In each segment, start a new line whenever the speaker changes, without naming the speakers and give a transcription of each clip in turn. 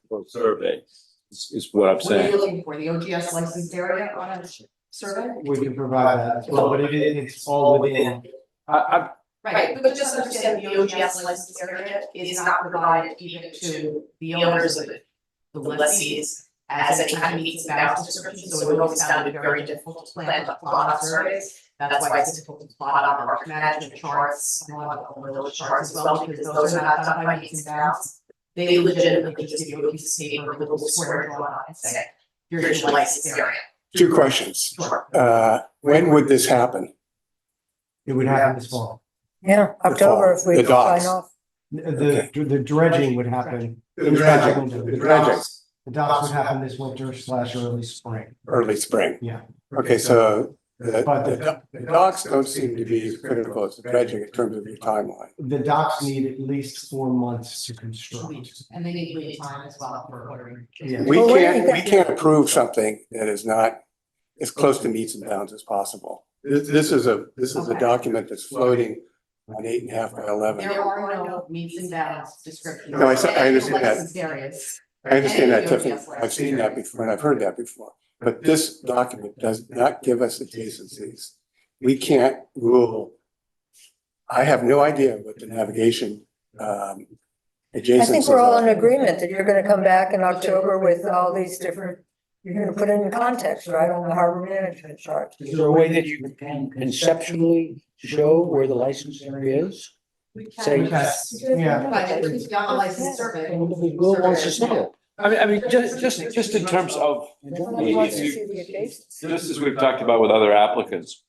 proposed survey, is, is what I'm
What are you
saying.
looking for, the OGS licensed area on a sh- survey?
We can provide that as well, but it is, it's all within, I, I,
Right, but just understand the OGS licensed area is not provided even to the owners of the the lessees as any kind of meets and bounds description, so it always sounded very difficult to plan a plot on surveys. That's why it's difficult to plot on our management charts and on the little charts as well, because those are not done by meets and bounds. They legitimately just give you a piece of paper with a little square drawn on it and say, here's your licensed area.
Two questions.
Sure.
Uh, when would this happen?
it would happen this fall.
Yeah,
fall,
October if we
the
sign
docks.
off.
The, the dredging would happen,
The
dredging.
The dredging,
the docks would happen this winter slash early spring.
early spring.
Yeah.
Okay, so the,
But
the
the-
do- the docks don't seem to be as critical as the dredging in terms of your timeline.
The docks need at least four months to construct.
And they need lead time as well for ordering.
Yeah.
We
Well, wait,
can't, we
that-
can't approve something that is not as close to meets and bounds as possible. This, this is a, this is a
Okay.
document that's floating on eight and a half by eleven.
There are no meets and bounds descriptions.
No, I s- I understand that.
Licensed areas.
I understand that, Tiffany.
Yes,
I've seen that before and I've heard that before. But this document does not give us adjacencies. We can't rule. I have no idea what the navigation um adjacencies
I think we're all in
are.
agreement that you're gonna come back in October with all these different, you're gonna put it in context, right, on the harbor management chart.
Is there a way that you can conceptually show where the license area is?
We
Say-
can,
Okay, yeah,
but it is beyond the licensed survey.
Who wants to see it?
I mean, I mean, just, just, just in terms of,
Everyone wants to see the adjacent.
just as we've talked about with other applicants,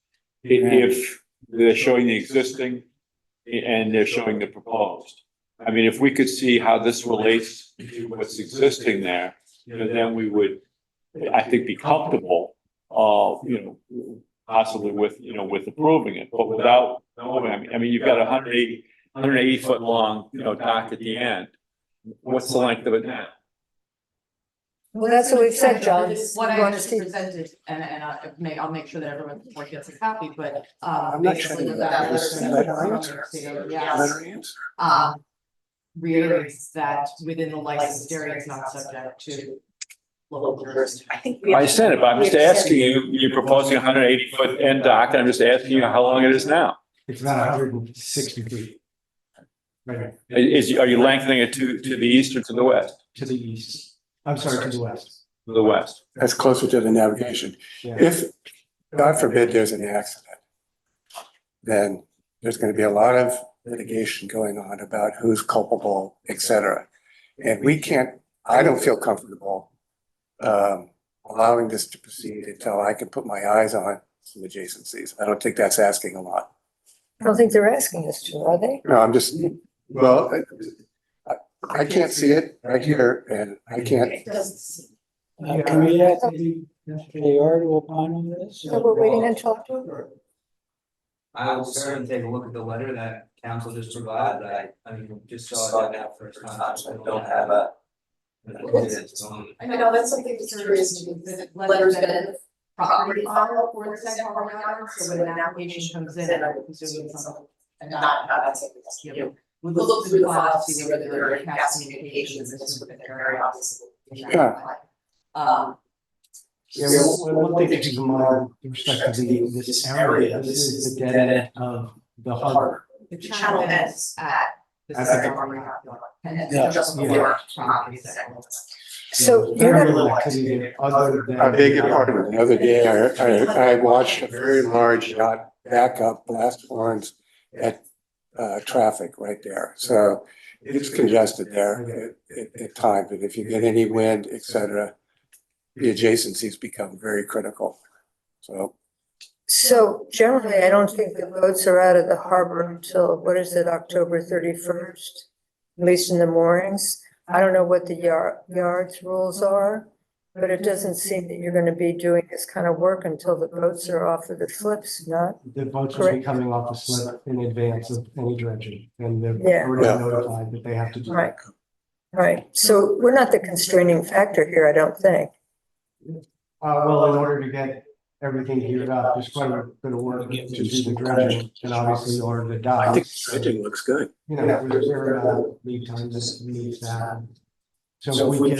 i- if they're showing the existing and they're showing the proposed. I mean, if we could see how this relates to what's existing there, you know, then we would, I think, be comfortable, uh, you know, possibly with, you know, with approving it, but without knowing, I mean, I mean, you've got a hundred eighty, hundred eighty foot long, you know, dock at the end. What's the length of it now?
Well, that's what we've said, John.
This is What
We
I
wanna
just
see-
presented, and, and I may, I'll make sure that everyone before gets a copy, but, um,
I'm not sure
basically
that
that
is
letter.
a letter answer.
Yes,
Better answer.
um, reiterates that within the licensed area, it's not subject to local jurisdiction. I think. we
I understand it, but I'm just asking you, you're proposing a hundred eighty foot end dock, and I'm just asking you how long it is now.
it's about hundred and sixty feet. Right,
Is, are you lengthening it to, to the east or to the west?
to the east, I'm sorry, to the west.
To the west.
That's closer to the navigation.
Yeah.
If, God forbid, there's an accident, then there's gonna be a lot of litigation going on about who's culpable, et cetera. And we can't, I don't feel comfortable um, allowing this to proceed until I can put my eyes on some adjacencies. I don't think that's asking a lot.
I don't think they're asking us to, are they?
No, I'm just, well, I, I can't see it right here and I can't,
It doesn't seem.
Uh, Can we ask the, they are to opine on this?
So we're waiting until October.
I will certainly take a look at the letter that council just provided, I, I mean, just saw it now first time, so I don't have a.
I know that's something that's curious to me, the letter's been in the property file for the second harbor matter, so when an application comes in, I would assume it's something. And not, not that's something that's you. We look through the file to see whether there are any past communications and this would have been very obvious.
Yeah.
Um,
Yeah, well, one one thing to keep in mind with respect to the, this area, this is the dead end of the harbor.
the channel ends at the
At the-
second harbor matter. And
Yeah.
it's just
Yeah.
before property second.
So
There's
you're
Very
not,
little activity there other than. uh,
I beg your pardon, the other day, I, I, I watched a very large yacht back up blast horns at, uh, traffic right there, so it's congested there at, at, at times, and if you get any wind, et cetera, the adjacencies become very critical, so.
so generally, I don't think the boats are out of the harbor until, what is it, October thirty-first? At least in the moorings. I don't know what the yard, yards rules are, but it doesn't seem that you're gonna be doing this kind of work until the boats are off of the flips, not?
The boats will be
Correct.
coming off the slip in advance of any dredging and they're
Yeah.
Yeah.
already notified that they have to do.
Right. Right, so we're not the constraining factor here, I don't think.
Uh, well, in order to get everything geared up, there's quite a bit of work to do the dredging and obviously order the
I think
docks.
dredging looks good.
You know, there's very, uh, lead times that needs to happen. So if we can